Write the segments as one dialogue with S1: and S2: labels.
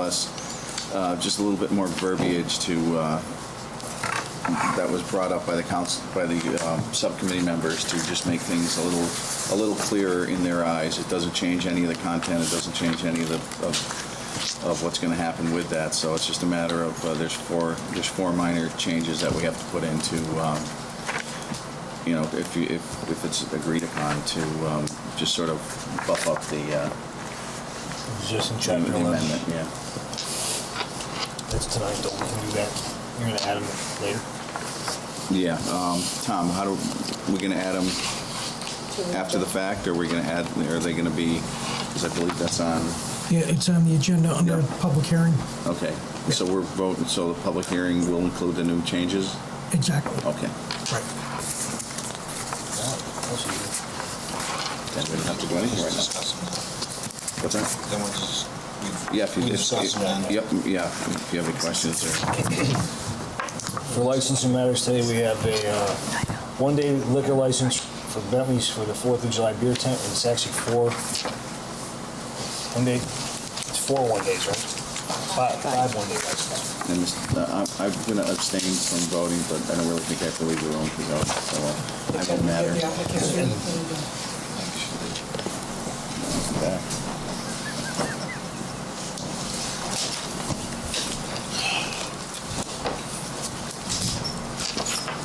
S1: us, uh, just a little bit more verbiage to, uh, that was brought up by the council, by the um, subcommittee members to just make things a little, a little clearer in their eyes. It doesn't change any of the content, it doesn't change any of the, of of what's going to happen with that. So it's just a matter of, uh, there's four, there's four minor changes that we have to put into, um, you know, if you, if, if it's agreed upon to um, just sort of buff up the uh,
S2: Just in
S1: the
S2: chapter
S1: amendment,
S2: 11.
S1: yeah.
S2: That's tonight, though, we can do that. You're gonna add them later.
S1: Yeah, um, Tom, how do, we gonna add them after the fact, or we gonna add, are they gonna be, because I believe that's on,
S3: Yeah, it's on the agenda under
S1: Yeah.
S3: public hearing.
S1: okay. So we're voting, so the public hearing will include the new changes?
S3: Exactly.
S1: Okay.
S3: Right.
S2: That's
S1: Then we don't have to do anything right now. What's that?
S4: Then we'll just, we
S1: Yeah, if you,
S4: we
S1: if,
S4: discuss them.
S1: yep, yeah, if you have any questions or,
S2: For licensing matters today, we have a uh, one-day liquor license for Bentley's for the Fourth of July beer tent, and it's actually four, one day, it's four one-days, right? Five, five one-day licenses.
S1: and this- uh, I- I'm gonna abstain from voting, but I don't really think I have to leave the room because I was, so uh, I don't matter. Back.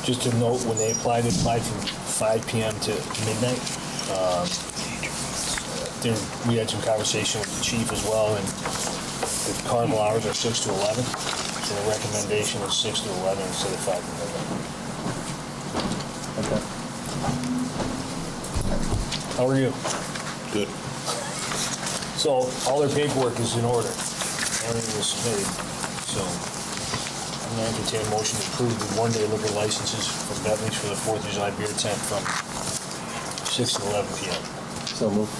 S2: Just to note, when they applied, they applied from five PM to midnight. Um, There, we had some conversation with the chief as well, and the carnival hours are six to eleven, so the recommendation is six to eleven instead of five to midnight.
S1: Okay.
S2: How are you?
S4: Good.
S2: So all their paperwork is in order. Everything was submitted, so I'm going to entertain a motion to approve the one-day liquor licenses for Bentley's for the Fourth of July beer tent from six to eleven PM.
S5: So moved.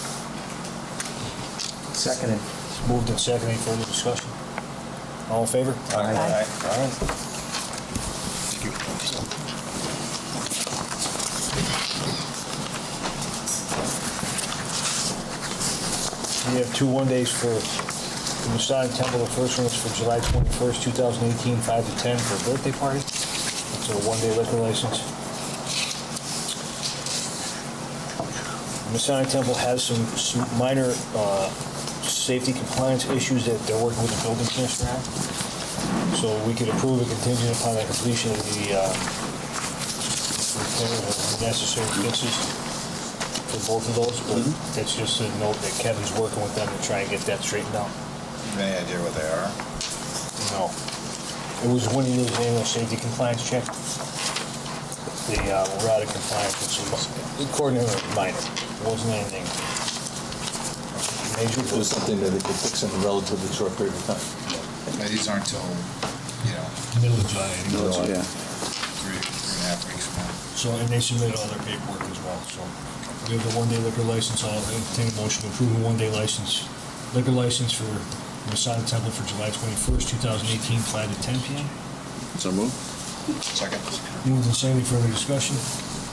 S5: Seconded.
S2: It's Moved and seconded, any further discussion? All in favor?
S4: All right, all right.
S2: All right. We have two one-days for the Masonic Temple. The first one is for July 21st, 2018, 5 to 10 for a birthday party. It's a one-day liquor license. Masonic Temple has some s- minor uh, safety compliance issues that they're working with the building commissioner on. So we could approve a contingent upon the completion of the uh, repair of the necessary fixes for both of those, but that's just a note that Kevin's working with them to try and get that straightened out.
S4: Any idea what they are?
S2: No. It was one of those annual safety compliance check. The uh, we're out of compliance with some, according to the minor, It wasn't anything major.
S5: It was something that they could fix in a relatively short period of time.
S4: Now, These aren't till, you know,
S2: Middle of July.
S1: Those- Yeah.
S4: three, three and a half weeks from now.
S2: So, and they submitted all their paperwork as well, so. We have the one-day liquor license, I'll entertain a motion to approve a one-day license, liquor license for Masonic Temple for July twenty-first, two thousand eighteen, five to ten PM.
S1: So move?
S4: Second?
S2: Moved and seconded, further discussion?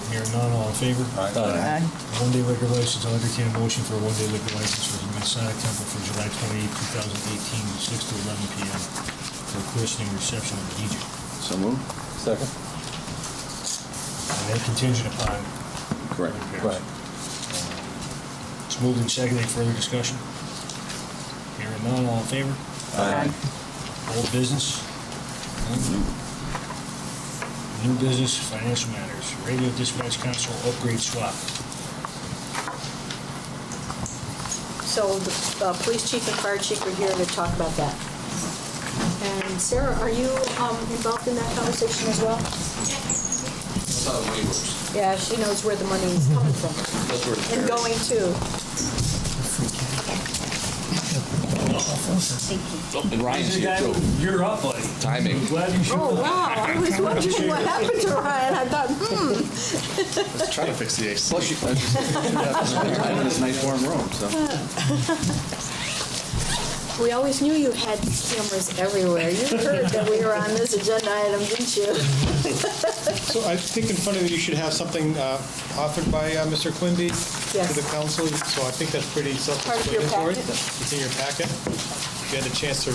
S2: Hearing none, all in favor?
S4: All right.
S5: Uh,
S2: One-day liquor license, I'll entertain a motion for a one-day liquor license for the Masonic Temple for July twenty-eighth, two thousand eighteen, six to eleven PM for christening reception of the DJ.
S1: So move?
S5: Second?
S2: And then contingent upon.
S1: Correct.
S2: repairs.
S5: Right.
S2: Um, It's moved and seconded, further discussion? Hearing none, all in favor? Old business? New business, financial matters, radio dispatch console upgrade swap.
S6: So the uh, police chief and fire chief are here to talk about that. And Sarah, are you um, involved in that conversation as well?
S7: Saw the waivers.
S6: Yeah, she knows where the money is coming from
S7: Those were the
S6: and going to.
S7: fairest. And Ryan's here too.
S2: You're up, buddy.
S7: Timing.
S2: Glad you showed
S6: Oh, wow, I was wondering what happened to Ryan. I thought, hmm,
S4: Let's try to fix the AC.
S1: Plus, you, I'm in this nice warm room, so.
S6: we always knew you had cameras everywhere. You heard that we were on this agenda item, didn't you?
S8: So I think in front of you, you should have something uh, offered by uh, Mr. Quimby
S6: Yes.
S8: to the council, so I think that's pretty
S6: Part of your
S8: self-explanatory.
S6: packet.
S8: It's in your packet. If you had a chance to